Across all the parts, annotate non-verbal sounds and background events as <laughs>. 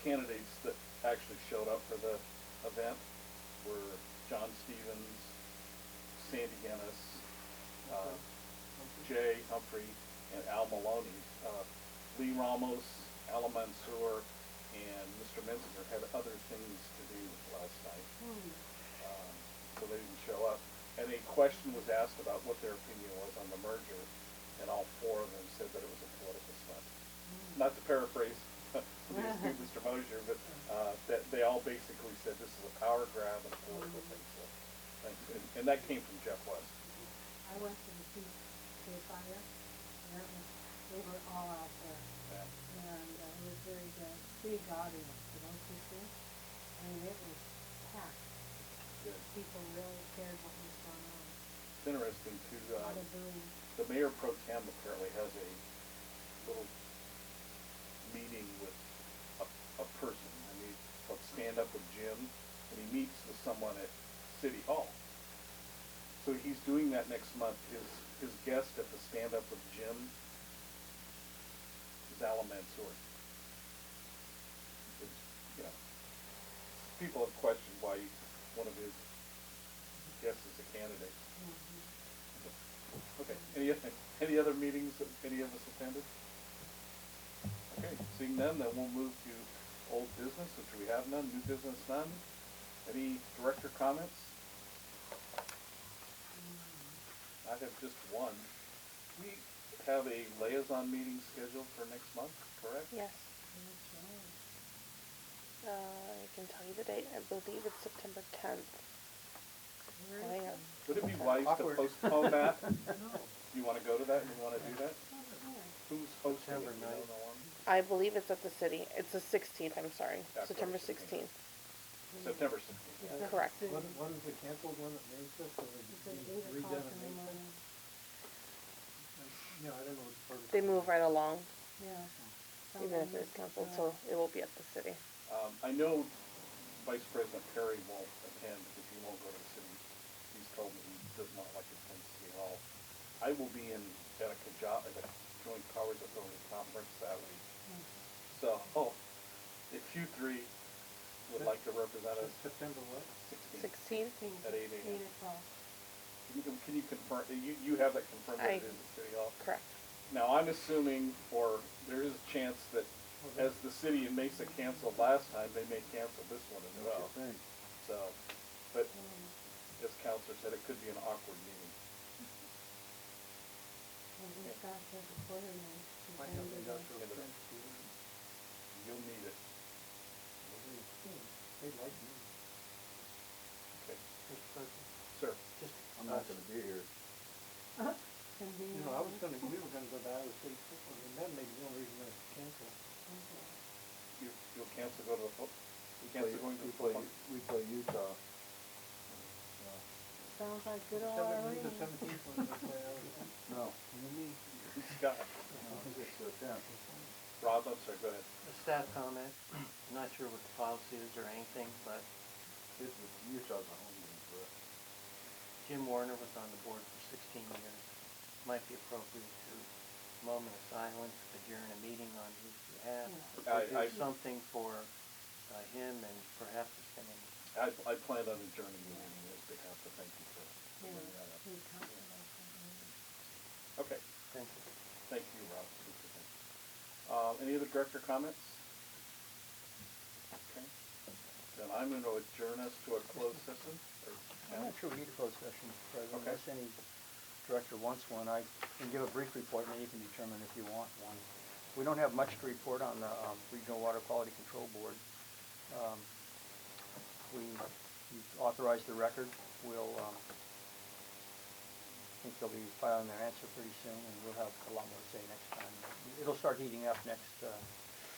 <laughs> candidates that actually showed up for the event were John Stevens, Sandy Guinness, uh, Jay Humphrey, and Al Maloney. Uh, Lee Ramos, Al Mansour, and Mr. Menzinger had other things to do last night. Um, So they didn't show up. And a question was asked about what their opinion was on the merger, and all four of them said that it was a political stunt. Not to paraphrase <laughs> Mr. Mosier, but uh, that they all basically said this is a power grab and a political thing. So, thanks. And- And that came from Jeff West. I went to the Peace Day Fire, and it was, they were all out there, Yeah. and uh, it was very good. Big audience, you know, people, I mean, it was packed. Good. People really cared what was going on, It's interesting too. a lot uh, of boom. the mayor pro tem apparently has a little meeting with a, a person. I mean, called Stand Up with Jim, and he meets with someone at City Hall. So he's doing that next month. His his guest at the Stand Up with Jim is Alan Mansour. Which, you know, people have questioned why one of his guests is a candidate. Mhm. Okay, any, any other meetings that any of us attended? Okay, seeing none, then we'll move to old business, which we have none, new business none. Any director comments? Mm-hmm. I have just one. We have a liaison meeting scheduled for next month, correct? Yes, Okay. uh, I can tell you the date. I believe it's September tenth. Very Hang good. on. Would it be wise to Awkward. <laughs> postpone <laughs> that? No. You wanna go to that, you wanna do that? Yeah. Who's hosting it? September You don't ninth. know on- I believe it's at the city. It's the sixteenth, I'm sorry, October September 16th. sixteenth. September sixteenth. Yeah. Correct. It's One, at- one is the canceled one at Main Fest, or is it's at it eight redone o'clock at in the Main Fest? morning, I- No, I don't know what the protocol. They move right along, yeah. Oh. even Oh, if it's canceled, so it will be at the city. Um, I know Vice President Perry won't attend because he won't go to the city. He's told me he does not like attending City Hall. I will be in, at a Kaja, at a Joint Powers Authority conference that week. So, <laughs> oh, if you three would like to represent us, Sep- September what? sixteen, Sixteenth? at eight AM. Eight o'clock. Can you, con- can you confirm, you, you have that confirmed that I- it is at City Hall? Correct. Now, I'm assuming, or there is a chance that as the city in Mesa canceled last time, they may cancel this one as well. So, but Mm. as Counselor said, it could be an awkward meeting. And we've got the recorder now. We've Might done have the- industrial Yeah. fence, you know, You'll need it. what do you think? They'd like me. Okay. Mr. President, Sir, just, I'm not gonna be here. Can be you know, I was on. gonna, we were gonna go to Iowa City football, and that may be the only reason I canceled. Okay. you, you'll cancel go to the foot, you We cancel play- going to we the football? play- We play Utah. Sounds like good old Seventeen, the Irene. seventeenth one, <laughs> uh, that's why I was. No, no, <laughs> Scott, no, it's the tenth. Rob, I'm sorry, go ahead. A staff comment, I'm not sure what the policy is or anything, but It's, the- Utah's a home game for us. Jim Warner was on the board for sixteen years. Might be appropriate to moment of silence, but you're in a meeting on his behalf. Yeah. I- Or I- do something for uh, him and perhaps his family. I, I planned on adjourning the meeting on his behalf, so thank you for bringing that up. We talked about that. Okay, Thank you. thank you, Rob. Uh, any other director comments? Okay, then I'm gonna adjourn us to a closed session, or, I'm not sure we need a closed session, Mr. President, Okay. unless any director wants one. I can give a brief report, and then you can determine if you want one. We don't have much to report on the um, Regional Water Quality Control Board. Um, We you've authorized the record. We'll, um, I think they'll be filing their answer pretty soon, and we'll have a lot more to say next time. It'll start heating up next, uh,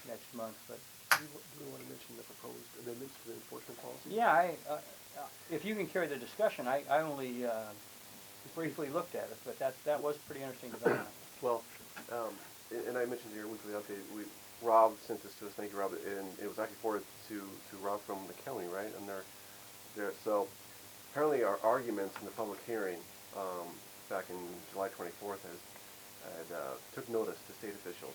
next month, but Do you- do you want to mention the proposed amendments to the enforcement policy? Yeah, I, uh, uh, if you can carry the discussion, I, I only, uh, briefly looked at it, but that, that was pretty interesting development. Well, um, and and I mentioned in your weekly update, we, Rob sent this to us, thank you, Rob, and it was actually forwarded to, to Rob from the county, right? And their their so apparently our arguments in the public hearing, um, back in July twenty-fourth has, had, uh, took notice to state officials